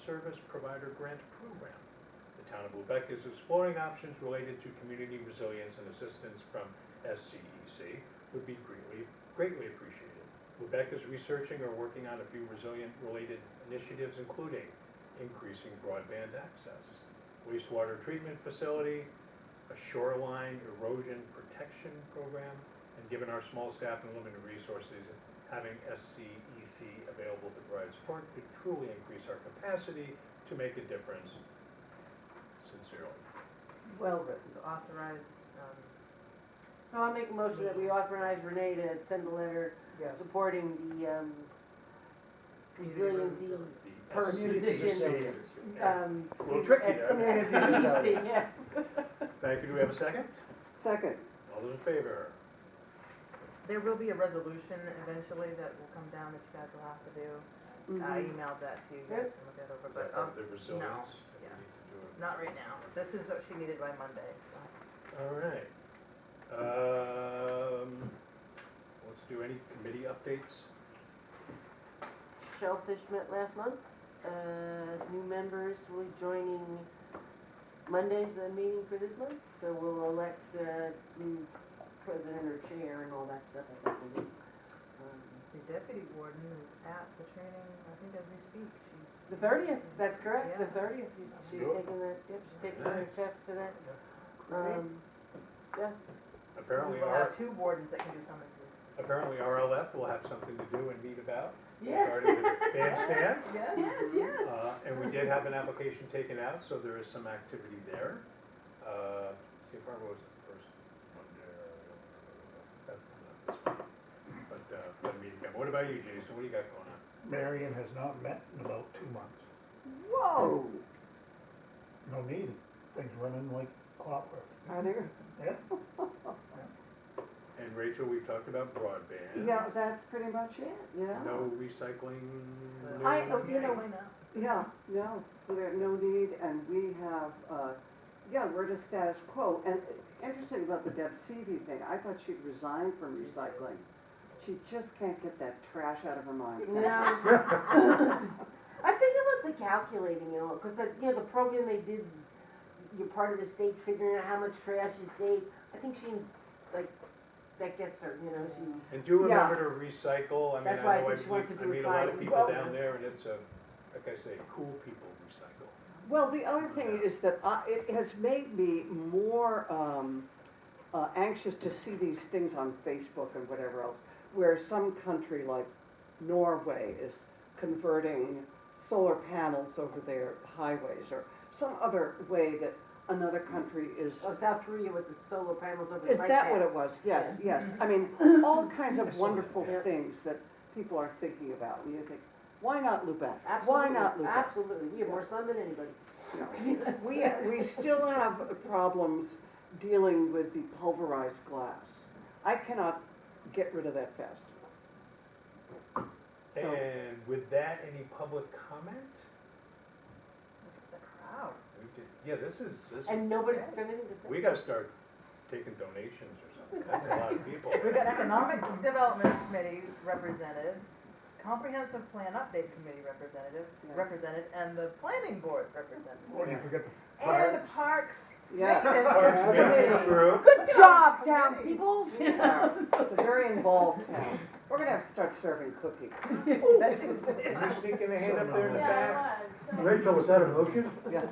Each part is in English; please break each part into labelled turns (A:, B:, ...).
A: Service Provider Grant Program. The town of Lubec is exploring options related to community resilience and assistance from SCEC would be greatly, greatly appreciated. Lubec is researching or working on a few resilient-related initiatives, including increasing broadband access, wastewater treatment facility, a shoreline erosion protection program, and given our small staff and limited resources, having SCEC available to provide support could truly increase our capacity to make a difference. Sincerely.
B: Well written.
C: So authorize, um,
B: So I'll make a motion that we authorize Renee to send a letter
C: yes.
B: supporting the um, resiliency,
A: The E
B: Per
A: SCEC
B: musician.
A: resilience.
B: um.
A: A little tricky there.
B: SCEC, yes.
A: Thank you. Do we have a second?
D: Second,
A: All those in favor?
C: There will be a resolution eventually that will come down that you guys will have to do. I
B: Mhm.
C: emailed that to you guys, can look that over,
A: Is
C: but,
A: that
C: um,
A: part of the resilience? that we
C: yeah.
A: need to do it?
C: not right now. This is what she needed by Monday, so.
A: All right. Um, let's do any committee updates.
B: Shellfish met last month. Uh, New members will be joining Monday's the meeting for this month, so we'll elect the new president or chair and all that stuff. I think we do. Um,
C: The deputy warden is at the training, I think as we speak, she's.
B: The thirtieth, that's correct, the
C: Yeah.
B: thirtieth. She's
A: Sure.
B: taking the, yep, she's taking her
A: Nice.
B: test today. Um,
A: Apparently,
C: We'll have
A: our,
C: two wardens that can do summonses.
A: apparently RLF will have something to do and meet about.
B: yeah.
A: regarding the Bandstand,
C: Yes.
B: yes.
A: uh, and we did have an application taken out, so there is some activity there. Uh, see, if our was the first one there. That's not this one. But, uh, but meeting, up. what about you, Jason? What do you got going on?
E: Marion has not met in about two months.
D: oh,
E: No need, things running like clockwork.
D: are there,
E: Yeah,
A: And Rachel, we talked about broadband.
D: yeah, that's pretty much it, yeah.
A: No recycling. no-
D: I- oh, you know-
C: Why not?
D: Yeah, no, there, no need, and we have, uh, yeah, we're just status quo, and uh, interesting about the Deb Seavey thing, I thought she'd resigned from recycling. She just can't get that trash out of her mind.
B: No. I think it was the calculating and all, because that, you know, the program they did, you're part of the state figuring out how much trash you save. I think she, like, that gets her, you know, she,
A: And do
D: Yeah.
A: remember to recycle, I mean,
B: That's
A: I
B: why I
A: know I
B: think she wants
A: meet,
B: to
A: I
B: do
A: meet a lot of
B: five.
A: people
D: Well-
A: down there and it's a, like I say, cool people recycle.
D: Well, the other thing is that I, it has made me more, um, uh, anxious to see these things on Facebook and whatever else, where some country like Norway is converting solar panels over their highways, or some other way that another country is,
B: oh, South Korea with the solar panels over the
D: is
B: bike
D: that what
B: paths.
D: it was? Yes, yes, I mean, all kinds of wonderful things that people are thinking about, and you think, why not Lubec? Why not
B: Absolutely,
D: Lubec?
B: absolutely. We have more sun than anybody.
D: No. We, we still have problems dealing with the pulverized glass. I cannot get rid of that fast. So-
A: And with that, any public comment?
C: Look at The crowd.
A: We did, yeah, this is, this is,
B: And nobody's got anything to say.
A: we gotta start taking donations or something, that's a lot of people.
C: We've got Economic Development Committee represented, Comprehensive Plan Update Committee representative,
D: Yes.
C: represented, and the Planning Board
E: and you
C: representative.
E: forget
C: And the Parks.
D: Yes.
C: Maintenance
A: Parks and
C: Committee.
A: Rec group.
B: Good job, town
C: Committee.
B: peoples.
D: It's a very involved town. We're gonna have to start serving cookies.
C: That should-
A: Can you sneak in a hand up there in the back?
F: Rachel, was that a motion?
D: Yeah.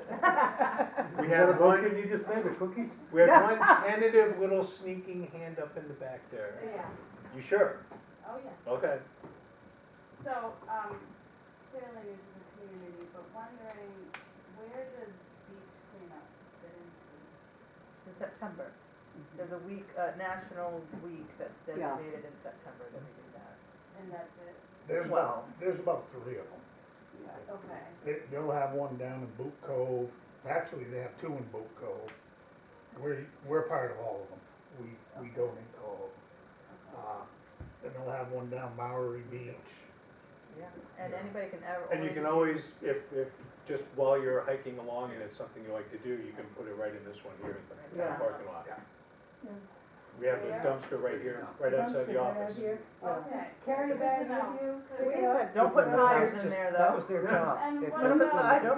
A: We
F: Is that
A: had
F: a
A: one,
F: motion you just made, the cookies?
A: we had one tentative little sneaking hand up in the back there.
G: Yeah,
A: You sure?
G: oh yeah.
A: Okay.
G: So, um, clearly it's in the community, but wondering, where does beach cleanup fit into?
C: In September. There's a week, uh, national week that's
D: Yeah.
C: designated in September that we do that.
G: And that's it,
E: There's about, there's about three of them.
G: okay.
E: They, they'll have one down in Boot Cove, actually, they have two in Boot Cove. We're, we're part of all of them, we, we donate to all of them. Uh, Then they'll have one down Maori Beach.
C: And
E: Yeah.
C: anybody can ever.
A: And you can always, if, if, just while you're hiking along and it's something you like to do, you can put it right in this one here in the town
C: Yeah.
A: parking lot. We have a
G: Yeah.
A: dumpster right here, right outside the office.
G: Okay.
D: Carry a
G: Good to
D: bag
G: know.
D: with you,
G: Good
D: pick
G: to
D: it
G: know.
D: up.
C: Don't put
D: That's
C: tires in
D: just-
C: there, though.
D: That was their job.
G: And
D: They
G: what
D: put
G: about-
D: aside.